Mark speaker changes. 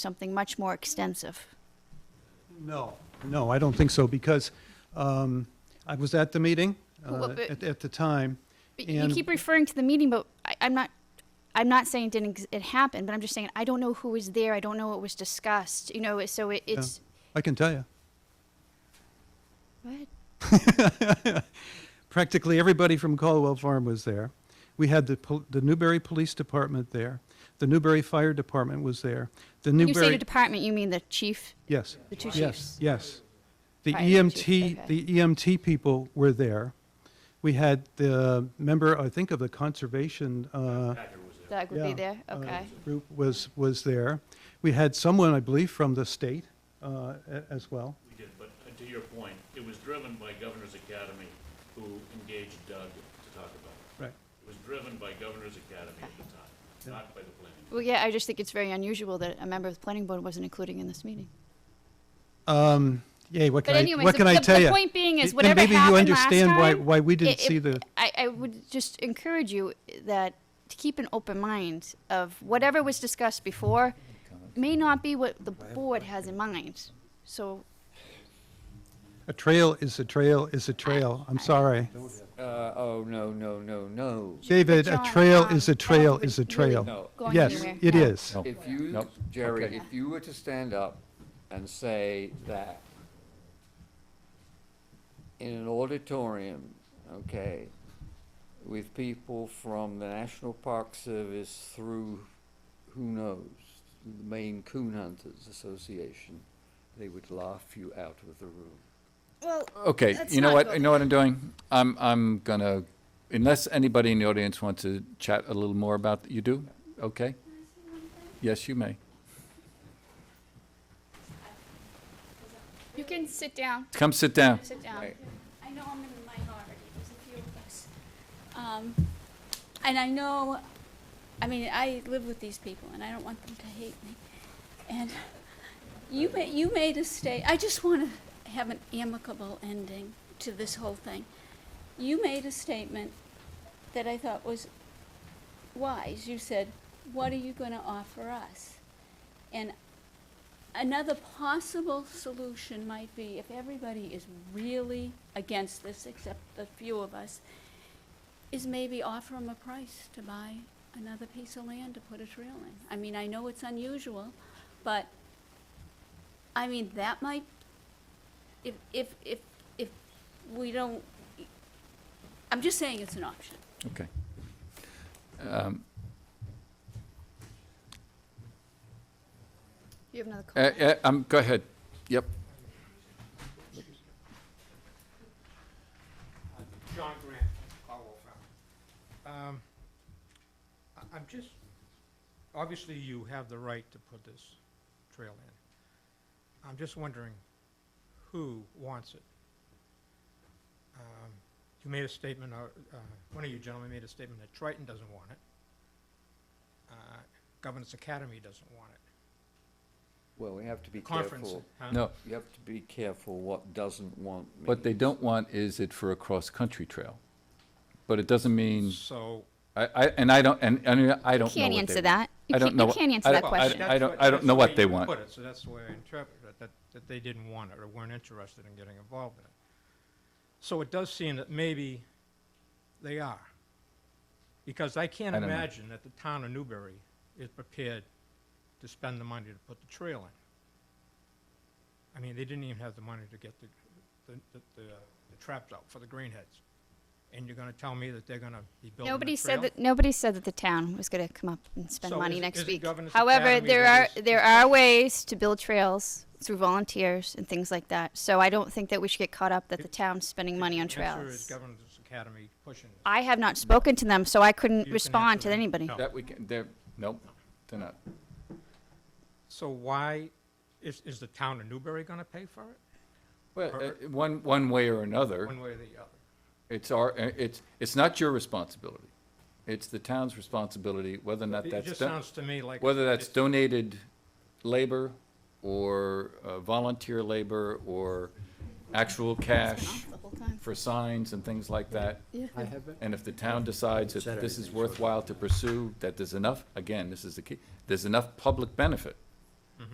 Speaker 1: something much more extensive.
Speaker 2: No, no, I don't think so, because um, I was at the meeting
Speaker 1: Who-
Speaker 2: uh,
Speaker 1: but-
Speaker 2: at at the time.
Speaker 1: But you
Speaker 2: And-
Speaker 1: keep referring to the meeting, but I, I'm not. I'm not saying it didn't ex- it happened, but I'm just saying I don't know who was there. I don't know what was discussed. You know, it- so it, it's
Speaker 2: I can tell you.
Speaker 1: what?
Speaker 2: Practically everybody from Caldwell Farm was there. We had the pol- the Newberry Police Department there. The Newberry Fire Department was there. The
Speaker 1: When you say the
Speaker 2: Newberry,
Speaker 1: department, you mean the chief,
Speaker 2: yes,
Speaker 1: the two
Speaker 2: yes,
Speaker 1: chiefs.
Speaker 2: yes. The
Speaker 1: Fire chief,
Speaker 2: EMT,
Speaker 1: okay.
Speaker 2: the EMT people were there. We had the member, I think, of the Conservation uh,
Speaker 1: Doug would
Speaker 2: Yeah,
Speaker 1: be there.
Speaker 2: uh,
Speaker 1: Okay.
Speaker 2: Group was, was there. We had someone, I believe, from the state uh, a- as well.
Speaker 3: We did, but uh, to your point, it was driven by Governor's Academy, who engaged Doug to talk about it.
Speaker 2: Right.
Speaker 3: It was driven by Governor's Academy at the time, not by the planning.
Speaker 1: well, yeah. I just think it's very unusual that a member of the planning board wasn't included in this meeting.
Speaker 2: Yay, what
Speaker 1: But
Speaker 2: can I,
Speaker 1: anyways,
Speaker 2: what
Speaker 1: the-
Speaker 2: can I
Speaker 1: the-
Speaker 2: tell
Speaker 1: the
Speaker 2: you?
Speaker 1: point being is
Speaker 2: Y-
Speaker 1: whatever
Speaker 2: Then
Speaker 1: happened
Speaker 2: maybe you understand
Speaker 1: last
Speaker 2: why,
Speaker 1: time,
Speaker 2: why we
Speaker 1: It-
Speaker 2: didn't
Speaker 1: it-
Speaker 2: see the,
Speaker 1: I, I would just encourage you that to keep an open mind of whatever was discussed before may not be what the board has in mind. So
Speaker 2: a trail is a trail is a trail. I'm sorry.
Speaker 4: Uh, oh, no, no, no, no.
Speaker 2: David, a
Speaker 1: John,
Speaker 2: trail
Speaker 1: um,
Speaker 2: is a trail
Speaker 1: that
Speaker 2: is a
Speaker 1: would
Speaker 2: trail.
Speaker 1: really
Speaker 4: No.
Speaker 1: going
Speaker 2: Yes,
Speaker 1: anywhere.
Speaker 2: it
Speaker 1: No.
Speaker 2: is.
Speaker 4: If you,
Speaker 5: Nope.
Speaker 4: Jerry,
Speaker 5: Okay.
Speaker 4: if you were to stand up and say that in an auditorium, okay, with people from the National Park Service through, who knows, the Maine Coon Hunters Association, they would laugh you out of the room.
Speaker 1: Well,
Speaker 5: Okay,
Speaker 1: Let's
Speaker 5: you know
Speaker 1: not
Speaker 5: what,
Speaker 1: go
Speaker 5: you know what I'm doing? I'm, I'm gonna, unless anybody in the audience wants to chat a little more about, you do? Okay? Yes, you may.
Speaker 1: you can sit down.
Speaker 5: Come sit down.
Speaker 1: Sit down.
Speaker 4: Right.
Speaker 6: I know I'm in the minority, there's a few of us. Um, and I know, I mean, I live with these people and I don't want them to hate me. And you ma- you made a sta- I just wanna have an amicable ending to this whole thing. You made a statement that I thought was wise. You said, what are you gonna offer us? And Another possible solution might be if everybody is really against this, except the few of us, is maybe offer them a price to buy another piece of land to put a trail in. I mean, I know it's unusual, but, I mean, that might, if, if, if, if we don't, I'm just saying it's an option.
Speaker 5: Okay. Um,
Speaker 1: You have another
Speaker 5: uh,
Speaker 1: call.
Speaker 5: uh, um, go ahead. Yep.
Speaker 7: John Grant, Caldwell Farm. Um, I- I'm just, obviously you have the right to put this trail in. I'm just wondering who wants it? Um, You made a statement, uh, uh, one of you gentlemen made a statement that Triton doesn't want it. Uh, Governance Academy doesn't want it.
Speaker 4: Well, we have to be
Speaker 7: Conference,
Speaker 4: careful.
Speaker 7: huh?
Speaker 5: No,
Speaker 4: You have to be careful what doesn't want me.
Speaker 5: what they don't want is it for a cross-country trail. But it doesn't mean,
Speaker 7: So,
Speaker 5: I, I, and I don't, and, and I don't know what they want.
Speaker 1: Can't answer that. You
Speaker 5: I don't
Speaker 1: can't-
Speaker 5: know
Speaker 1: you
Speaker 5: what-
Speaker 1: can't answer
Speaker 5: I
Speaker 1: that
Speaker 5: don't- I
Speaker 1: question.
Speaker 7: That's
Speaker 5: don't-
Speaker 7: what-
Speaker 5: I don't
Speaker 7: that's
Speaker 5: know
Speaker 7: the
Speaker 5: what
Speaker 7: way
Speaker 5: they
Speaker 7: you
Speaker 5: want.
Speaker 7: Put it, so that's the way I interpret it, that, that they didn't want it or weren't interested in getting involved in it. So it does seem that maybe they are. Because I can't
Speaker 5: I don't know.
Speaker 7: imagine that the town of Newbury is prepared to spend the money to put the trail in. I mean, they didn't even have the money to get the, the, the, the uh, the traps out for the greenheads. And you're gonna tell me that they're gonna be building a trail?
Speaker 1: Nobody said that. Nobody said that the town was going to come up and spend
Speaker 7: So
Speaker 1: money
Speaker 7: is it-
Speaker 1: next
Speaker 7: is it
Speaker 1: week.
Speaker 7: Governors
Speaker 1: However,
Speaker 7: Academy
Speaker 1: there are
Speaker 7: that is-
Speaker 1: there are ways to build trails through volunteers and things like that. So I don't think that we should get caught up that the town's spending money on
Speaker 7: The answer is
Speaker 1: trails.
Speaker 7: Governors Academy pushing this.
Speaker 1: I have not spoken to them, so I couldn't
Speaker 7: can
Speaker 1: respond
Speaker 7: answer
Speaker 1: to
Speaker 7: that.
Speaker 1: anybody.
Speaker 7: No.
Speaker 5: That we can, they're, nope, they're not.
Speaker 7: So why, is, is the town of Newbury gonna pay for it,
Speaker 5: Well, uh, one, one way or another.
Speaker 7: one way or the other?
Speaker 5: It's our, uh, it's, it's not your responsibility. It's the town's responsibility, whether or not
Speaker 7: It- It
Speaker 5: that's,
Speaker 7: just
Speaker 5: don-
Speaker 7: sounds to me like.
Speaker 5: whether that's
Speaker 7: it's-
Speaker 5: donated labor or uh, volunteer labor or actual cash for signs and things like that. And if the town decides that this is worthwhile to pursue, that there's enough, again, this is the key, there's enough public benefit